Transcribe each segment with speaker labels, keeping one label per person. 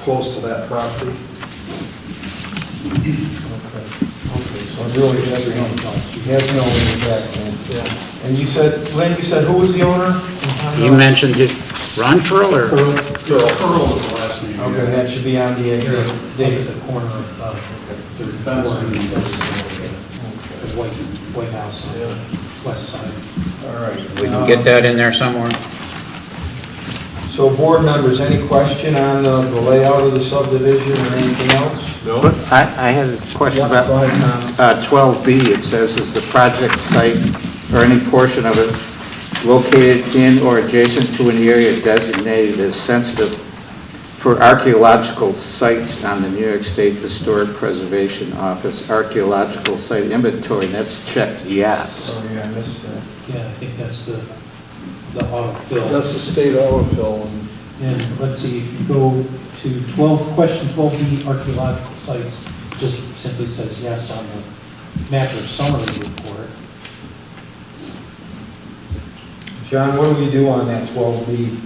Speaker 1: close to that property.
Speaker 2: Okay, okay, so it really has no, it has no impact then.
Speaker 1: Yeah.
Speaker 2: And you said, Lynn, you said who was the owner?
Speaker 3: You mentioned it, Ron Pearl or?
Speaker 1: Earl- Earl.
Speaker 4: Pearl is the last name.
Speaker 2: Okay, that should be on the,
Speaker 5: Here,
Speaker 2: uh,
Speaker 5: up
Speaker 2: date.
Speaker 5: at the corner of, uh, the
Speaker 4: The fence and the-
Speaker 5: White, White House on the west side.
Speaker 2: all right.
Speaker 3: We can get that in there somewhere.
Speaker 2: Uh, So board members, any question on uh, the layout of the subdivision or anything else?
Speaker 1: No?
Speaker 6: But I, I had a question
Speaker 2: Yeah,
Speaker 6: about
Speaker 2: go ahead, Tom.
Speaker 6: uh, 12B. It says, is the project site or any portion of it located in or adjacent to an area designated as sensitive for archaeological sites on the New York State Historic Preservation Office archaeological site inventory? And that's checked yes.
Speaker 2: Sorry, I missed that.
Speaker 5: Yeah, I think that's the, the autofill.
Speaker 1: That's the state olive hill, and
Speaker 5: And let's see, if you go to 12, question 12B, archaeological sites, just simply says yes on the map or summary report.
Speaker 2: John, what do we do on that 12B?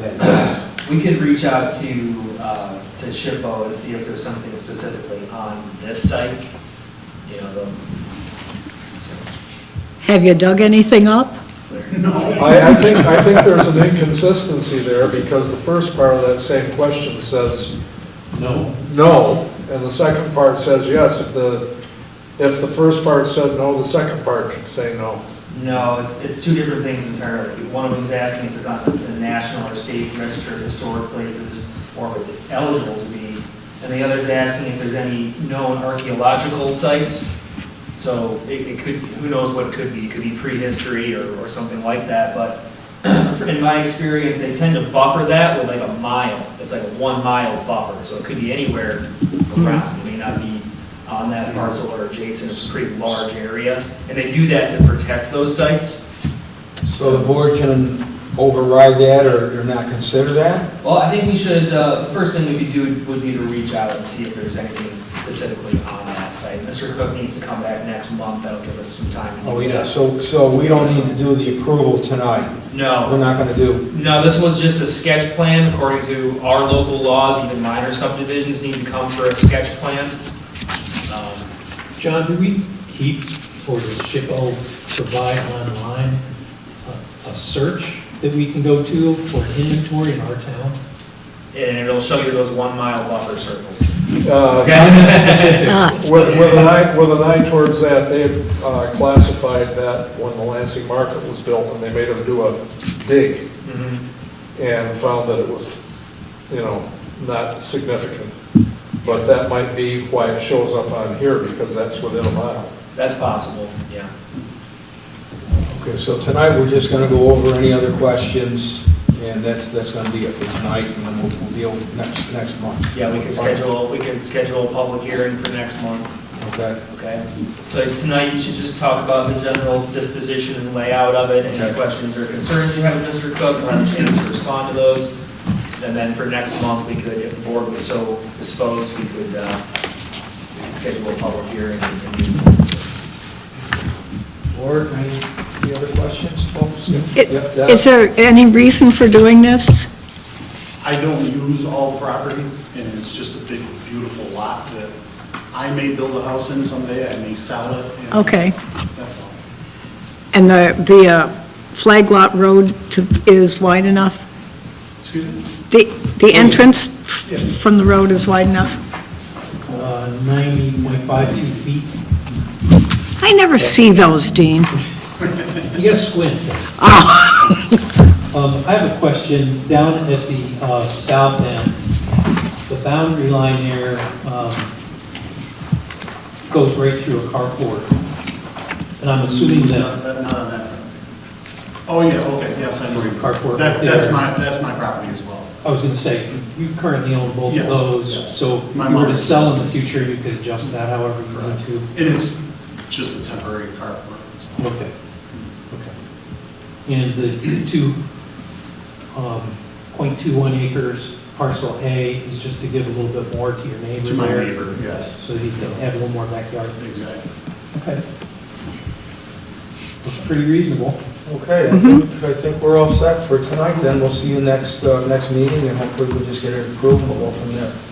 Speaker 2: that is?
Speaker 7: We could reach out to, uh, to SHPO and see if there's something specifically on this site, you know, the,
Speaker 8: Have you dug anything up?
Speaker 1: I, I think, I think there's an inconsistency there, because the first part of that same question says
Speaker 5: No.
Speaker 1: no, and the second part says yes. If the, if the first part said no, the second part should say no.
Speaker 7: no, it's, it's two different things entirely. One of them's asking if it's on the national or state register of historic places, or if it's eligible to be, and the other's asking if there's any known archaeological sites. So it, it could, who knows what it could be, it could be prehistory or, or something like that, but in my experience, they tend to buffer that with like a mile, it's like a one-mile buffer, so it could be anywhere around, it may not be on that parcel or adjacent, it's a pretty large area, and they do that to protect those sites.
Speaker 2: So the board can override that or or not consider that?
Speaker 7: Well, I think we should, uh, the first thing we could do would be to reach out and see if there's anything specifically on that site. Mr. Cook needs to come back next month, that'll give us some time. to
Speaker 5: Oh,
Speaker 2: Oh,
Speaker 7: do that.
Speaker 2: So, so we don't need to do the approval tonight?
Speaker 7: No.
Speaker 2: We're not going to do,
Speaker 7: No, this was just a sketch plan, according to our local laws, even minor subdivisions need to come for a sketch plan. Um,
Speaker 5: John, do we keep or does SHPO provide online a- a search that we can go to for an inventory in our town?
Speaker 7: And it'll show you those one-mile buffer circles.
Speaker 1: Uh,
Speaker 8: Ah,
Speaker 1: With, with an eye, with an eye towards that, they had uh, classified that when the Lansing Market was built, and they made them do a dig, and found that it was, you know, not significant. But that might be why it shows up on here, because that's within a mile.
Speaker 7: That's possible, yeah.
Speaker 2: okay, so tonight, we're just going to go over any other questions, and that's, that's going to be it for tonight, and then we'll we'll deal with next, next month.
Speaker 7: Yeah, we can schedule, we can schedule a public hearing for next month,
Speaker 2: Okay,
Speaker 7: okay? So tonight, you should just talk about the general disposition and layout of it, any questions or concerns you have, Mr. Cook, we'll have a chance to respond to those. And then for next month, we could, if the board was so disposed, we could, uh, we could schedule a public hearing. and convene.
Speaker 2: board, any any other questions, folks?
Speaker 8: It-
Speaker 2: Yep, Deb?
Speaker 8: Is there any reason for doing this?
Speaker 4: I don't use all property, and it's just a big, beautiful lot that I may build a house in someday, I may sell it. and
Speaker 8: Okay.
Speaker 4: That's all.
Speaker 8: And the, the uh, Flag Lot Road to- is wide enough?
Speaker 4: Excuse me?
Speaker 8: The, the entrance f- from the road is wide enough?
Speaker 5: Uh, 90.52 feet.
Speaker 8: I never see those, Dean.
Speaker 5: You gotta squint.
Speaker 4: Oh.
Speaker 5: Um, I have a question, down at the, uh, south end, the boundary line there, um, goes right through a carport. And I'm assuming
Speaker 4: No,
Speaker 5: that,
Speaker 4: that- Not on that. Oh, yeah, okay, yes, I know.
Speaker 5: Your carport
Speaker 4: That-
Speaker 5: right
Speaker 4: That's
Speaker 5: there.
Speaker 4: my, that's my property as well.
Speaker 5: I was gonna say, you currently own both of
Speaker 4: Yes,
Speaker 5: those,
Speaker 4: yes.
Speaker 5: so
Speaker 4: My
Speaker 5: if you were to
Speaker 4: mother-
Speaker 5: sell in the future, you could adjust that however you want to.
Speaker 4: It is just a temporary carport. that's all.
Speaker 5: Okay, okay. And the two, um, .21 acres, parcel A is just to give a little bit more to your neighbor
Speaker 4: To my
Speaker 5: there,
Speaker 4: neighbor, yes,
Speaker 5: So that he can have a little more backyard.
Speaker 4: exactly.
Speaker 5: Okay. Looks pretty reasonable.
Speaker 2: Okay, I think, I think we're all set for tonight, then we'll see you next, uh, next meeting, and hopefully we'll just get it approved, and we'll go from there.